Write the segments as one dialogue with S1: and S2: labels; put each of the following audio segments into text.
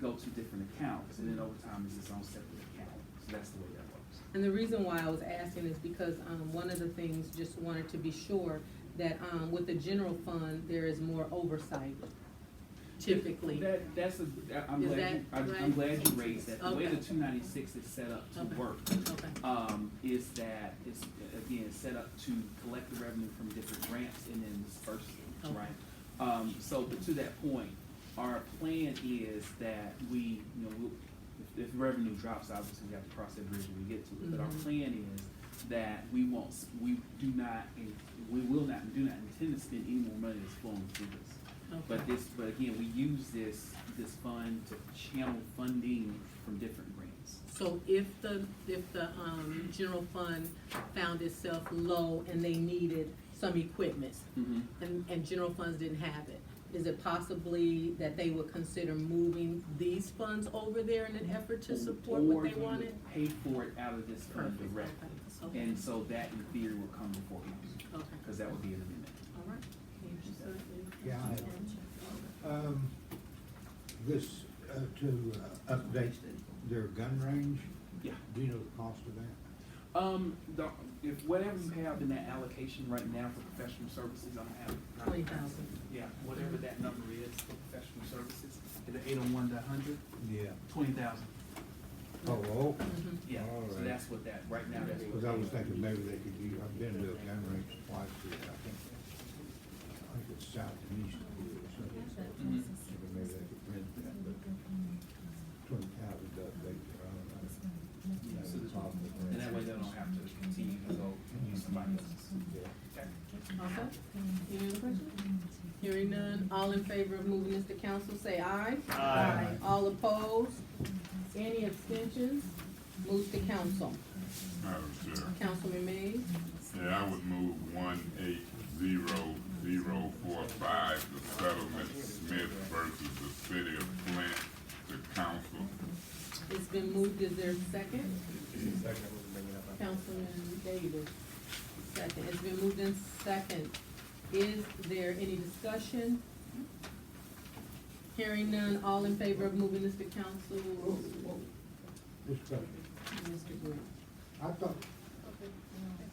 S1: go to different accounts, and then over time, it's its own separate account, so that's the way that works.
S2: And the reason why I was asking is because, um, one of the things, just wanted to be sure that, um, with the general fund, there is more oversight typically.
S1: That, that's a, that- I'm
S2: Is
S1: glad, you-
S2: that
S1: I'm, I'm
S2: right?
S1: glad you raised that, the way
S2: Okay.
S1: the two ninety-six is set up to
S2: Okay.
S1: work,
S2: Okay,
S1: um, is that it's, again, set up to collect the revenue from different grants and then disperse it,
S2: Okay.
S1: right? Um, so, but to that point, our plan is that we, you know, we'll- if, if revenue drops, obviously we have to cross that bridge when we get to it. But our
S2: Mhm.
S1: plan is that we won't, s- we do not, and we will not, do not intend to spend any more money that's flowing through this. But
S2: okay,
S1: this, but again, we use this, this fund to channel funding from different grants.
S2: so if the, if the, um, general fund found itself low and they needed some equipment, and, and general funds didn't have it. Is it possibly that they would consider moving these funds over there in an effort to support what
S1: Or
S2: they
S1: you would
S2: wanted?
S1: Pay for it out of this fund
S2: Perfect,
S1: directly.
S2: okay, okay,
S1: And so that in theory will come before council,
S2: okay,
S1: because that would be an amendment.
S2: all right. Interesting.
S3: Yeah, Um, this, uh, to uh, update their gun range?
S1: Yeah.
S3: Do you know the cost of that?
S1: Um, the, if whatever you have in that allocation right now for professional services, I'm happy.
S2: Twenty thousand,
S1: Yeah, whatever that number is for professional services, the eight oh one to a hundred,
S3: Yeah.
S1: twenty thousand,
S3: Oh, okay.
S1: yeah. So
S3: Alright.
S1: that's what that, right now, that's what.
S3: Cause I was thinking maybe they could use, I've been to a gun range twice here, I think. I think it's south and east of here or something.
S1: Mhm.
S3: So Maybe they could rent that, but twenty thousand to update their own. uh, I don't know.
S1: So the-
S3: Problem with
S1: And that way they don't have to continue to go and use somebody else's.
S3: Yeah.
S1: Okay.
S2: okay. Any other questions? Hearing none, all in favor of moving this to council, say aye.
S3: Aye.
S2: All opposed? Any abstentions? Moves to council.
S4: Madam Chair,
S2: Councilman Mays?
S4: yeah, I would move one eight zero zero four five, the settlement Smith versus the city of Flint to council.
S2: It's been moved, is there a second? Councilman Davis, second, it's been moved in second. Is there any discussion? Hearing none, all in favor of moving this to council?
S3: This question.
S2: Mr. Green.
S3: I thought,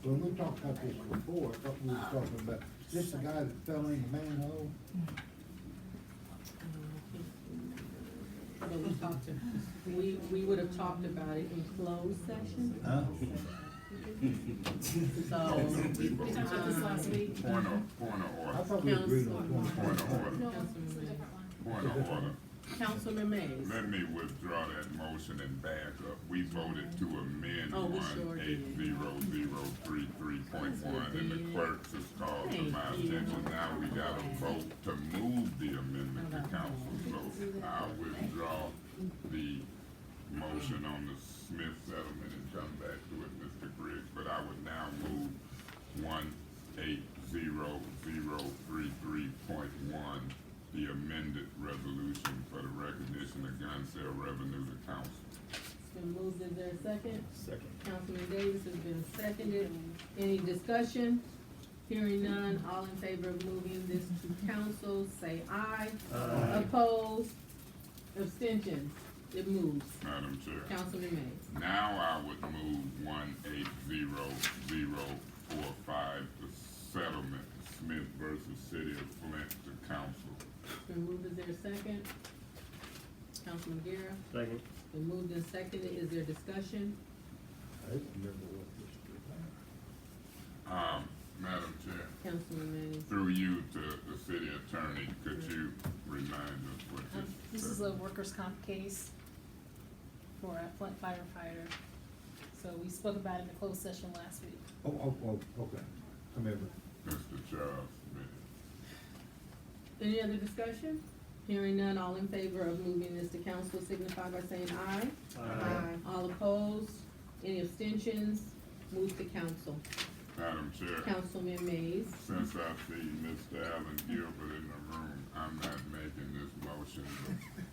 S3: when we talked about this before, I thought we were talking about, this the guy that fell in the manhole?
S2: But we talked, to- we, we would have talked about it in closed session,
S3: Huh?
S2: so. um,
S5: We talked about this last week.
S4: Point of, point of
S3: I
S4: order,
S3: thought we agreed on
S4: point
S3: twenty.
S4: of order,
S5: No, it's a different one.
S4: point of order.
S2: Councilman Mays,
S4: Let me withdraw that motion and back up. We voted to amend
S2: Oh, we sure
S4: one eight
S2: did.
S4: zero zero three three point one, and the clerk just called to my
S2: Thank you.
S4: attention. Now we got a vote to move the amendment to council, so I withdraw the motion on the Smith settlement and come back to it, Mr. Griggs. But I would now move one eight zero zero three three point one, the amended resolution for the recognition of gun sale revenue to council.
S2: it's been moved, is there a second?
S4: Second.
S2: Councilman Davis has been seconded. Any discussion? Hearing none, all in favor of moving this to council, say aye. Opposed? Abstentions? It moves.
S4: Madam Chair.
S2: Councilman Mays.
S4: Now I would move one eight zero zero four five, the settlement, Smith versus City of Flint to council.
S2: It's been moved, is there a second? Councilman Guerra,
S6: Second.
S2: it's been moved and seconded, is there discussion?
S3: I don't remember what this was about.
S4: Um, Madam Chair,
S2: Councilman Mays.
S4: through you to the city attorney, could you remind us what
S5: Um,
S4: this?
S5: This is a workers' comp case for a Flint firefighter. So we spoke about it in the closed session last week.
S3: Oh, oh, oh, okay, I remember.
S4: Mr. Charles Smith.
S2: Any other discussion? Hearing none, all in favor of moving this to council signify by saying aye. Aye. All opposed? Any abstentions? Move to council.
S4: Madam Chair,
S2: Councilman Mays,
S4: since I see Mr. Allen Gilbert in the room, I'm not making this motion,